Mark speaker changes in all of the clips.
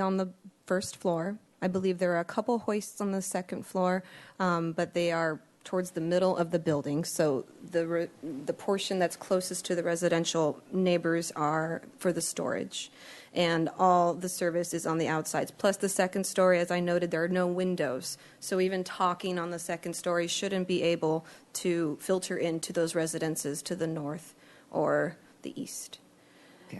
Speaker 1: on the first floor. I believe there are a couple hoists on the second floor, um, but they are towards the middle of the building. So the, re- the portion that's closest to the residential neighbors are for the storage. And all the service is on the outsides. Plus, the second story, as I noted, there are no windows. So even talking on the second story shouldn't be able to filter into those residences to the north or the east.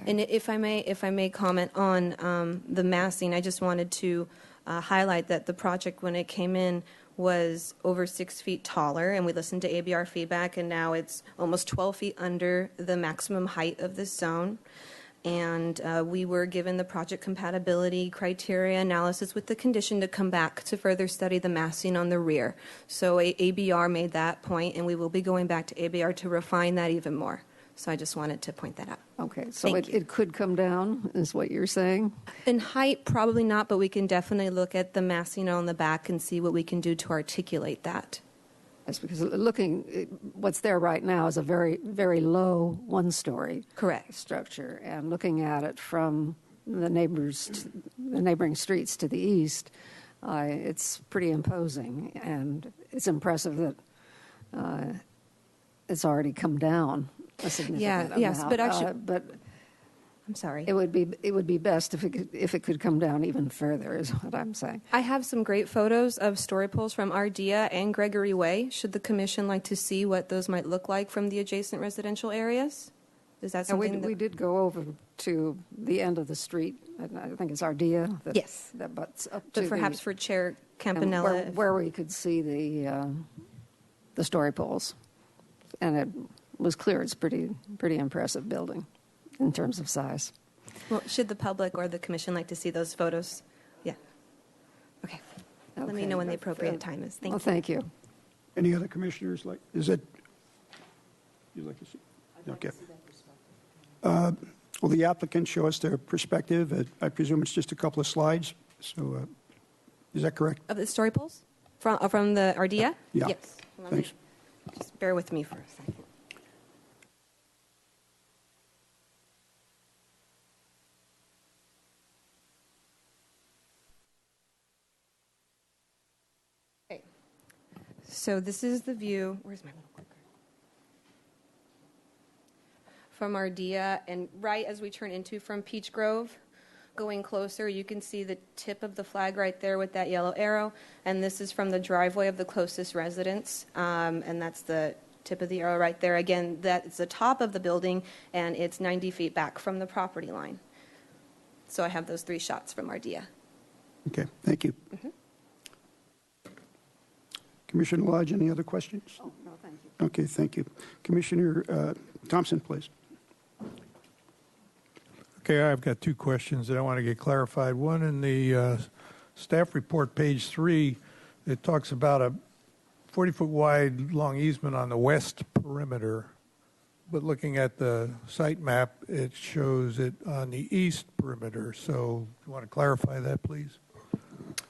Speaker 1: And if I may, if I may comment on um, the massing, I just wanted to uh, highlight that the project, when it came in, was over six feet taller, and we listened to ABR feedback, and now it's almost 12 feet under the maximum height of this zone. And uh, we were given the project compatibility criteria analysis with the condition to come back to further study the massing on the rear. So A- ABR made that point, and we will be going back to ABR to refine that even more. So I just wanted to point that out.
Speaker 2: Okay, so
Speaker 1: Thank
Speaker 2: it,
Speaker 1: you.
Speaker 2: it could come down, is what you're saying?
Speaker 1: In height, probably not, but we can definitely look at the massing on the back and see what we can do to articulate that.
Speaker 2: That's because looking, it- what's there right now is a very, very low one-story
Speaker 1: Correct.
Speaker 2: structure, and looking at it from the neighbors, t- the neighboring streets to the east, uh, it's pretty imposing, and it's impressive that uh, it's already come down a significant amount.
Speaker 1: yes, but actually-
Speaker 2: Uh, but
Speaker 1: I'm sorry.
Speaker 2: it would be it would be best if it could, if it could come down even further, is what I'm saying.
Speaker 1: I have some great photos of story poles from Ardea and Gregory Way. Should the commission like to see what those might look like from the adjacent residential areas? Is that
Speaker 2: And we,
Speaker 1: something that?
Speaker 2: we did go over to the end of the street, and I think it's Ardea. that-
Speaker 1: Yes.
Speaker 2: That butts up to
Speaker 1: But
Speaker 2: the-
Speaker 1: perhaps for Chair
Speaker 2: and
Speaker 1: Campanella.
Speaker 2: Where, where we could see the, uh, the story poles. And it was clear, it's pretty, pretty impressive building in terms of size.
Speaker 1: Well, should the public or the commission like to see those photos? Yeah. Okay. Let me
Speaker 2: Okay.
Speaker 1: know when the appropriate time is. Thank
Speaker 2: Well,
Speaker 1: you.
Speaker 2: thank you.
Speaker 3: Any other commissioners like, is it, you'd like to see? Okay. Uh, Will the applicant show us their perspective? Uh, I presume it's just a couple of slides, so uh, is that correct?
Speaker 1: Of the story poles from, uh, from the Ardea?
Speaker 3: Yeah.
Speaker 1: Yes. Let me-
Speaker 3: Thanks.
Speaker 1: Just bear with me for a second. Okay. So this is the view, where's my little clicker? From Ardea, and right as we turn into from Peach Grove, going closer, you can see the tip of the flag right there with that yellow arrow, and this is from the driveway of the closest residence, um, and that's the tip of the arrow right there. Again, that's the top of the building, and it's 90 feet back from the property line. So I have those three shots from Ardea.
Speaker 3: Okay, thank you. Commissioner Lodge, any other questions?
Speaker 2: Oh, no, thank you.
Speaker 3: Okay, thank you. Commissioner uh, Thompson, please.
Speaker 4: Okay, I've got two questions that I want to get clarified. One, in the uh, staff report, page three, it talks about a 40-foot wide long easement on the west perimeter, but looking at the site map, it shows it on the east perimeter. So you want to clarify that, please?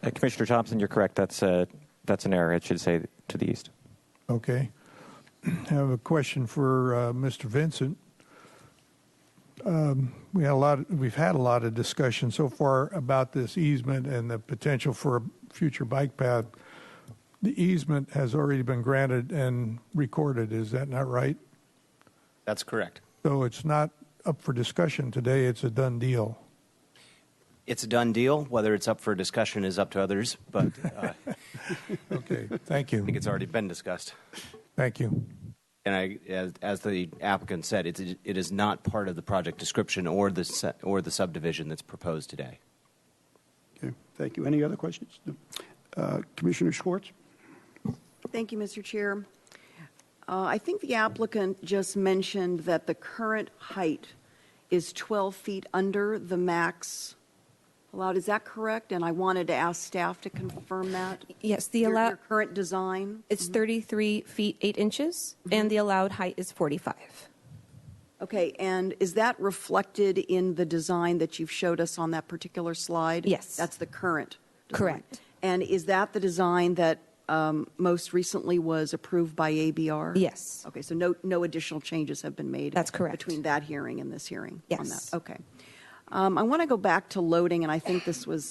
Speaker 5: Uh, Commissioner Thompson, you're correct. That's uh, that's an error. It should say to the east.
Speaker 4: Okay. I have a question for uh, Mr. Vincent. Um, we had a lot. We've had a lot of discussion so far about this easement and the potential for a future bike path. The easement has already been granted and recorded. Is that not right?
Speaker 6: That's correct.
Speaker 4: So it's not up for discussion today. It's a done deal.
Speaker 6: It's a done deal. Whether it's up for discussion is up to others, but uh, I
Speaker 4: Okay. Thank you.
Speaker 6: think it's already been discussed.
Speaker 4: Thank you.
Speaker 6: And I, as, as the applicant said, it's, it is not part of the project description or the, se- or the subdivision that's proposed today.
Speaker 3: Okay, thank you. Any other questions? No. Uh, Commissioner Schwartz?
Speaker 7: Thank you, Mr. Chair. Uh, I think the applicant just mentioned that the current height is 12 feet under the max allowed. Is that correct? And I wanted to ask staff to confirm that.
Speaker 1: Yes, the
Speaker 7: Your-
Speaker 1: allow,
Speaker 7: Your current design?
Speaker 1: it's 33 feet 8 inches, and the allowed height is 45.
Speaker 7: Okay, and is that reflected in the design that you've showed us on that particular slide?
Speaker 1: Yes.
Speaker 7: That's the current? design.
Speaker 1: Correct.
Speaker 7: And is that the design that um, most recently was approved by ABR?
Speaker 1: Yes.
Speaker 7: Okay, so no, no additional changes have been made?
Speaker 1: That's correct.
Speaker 7: Between that hearing and this hearing? on
Speaker 1: Yes.
Speaker 7: that. Okay. Um, Um, I want to go back to loading, and I think this was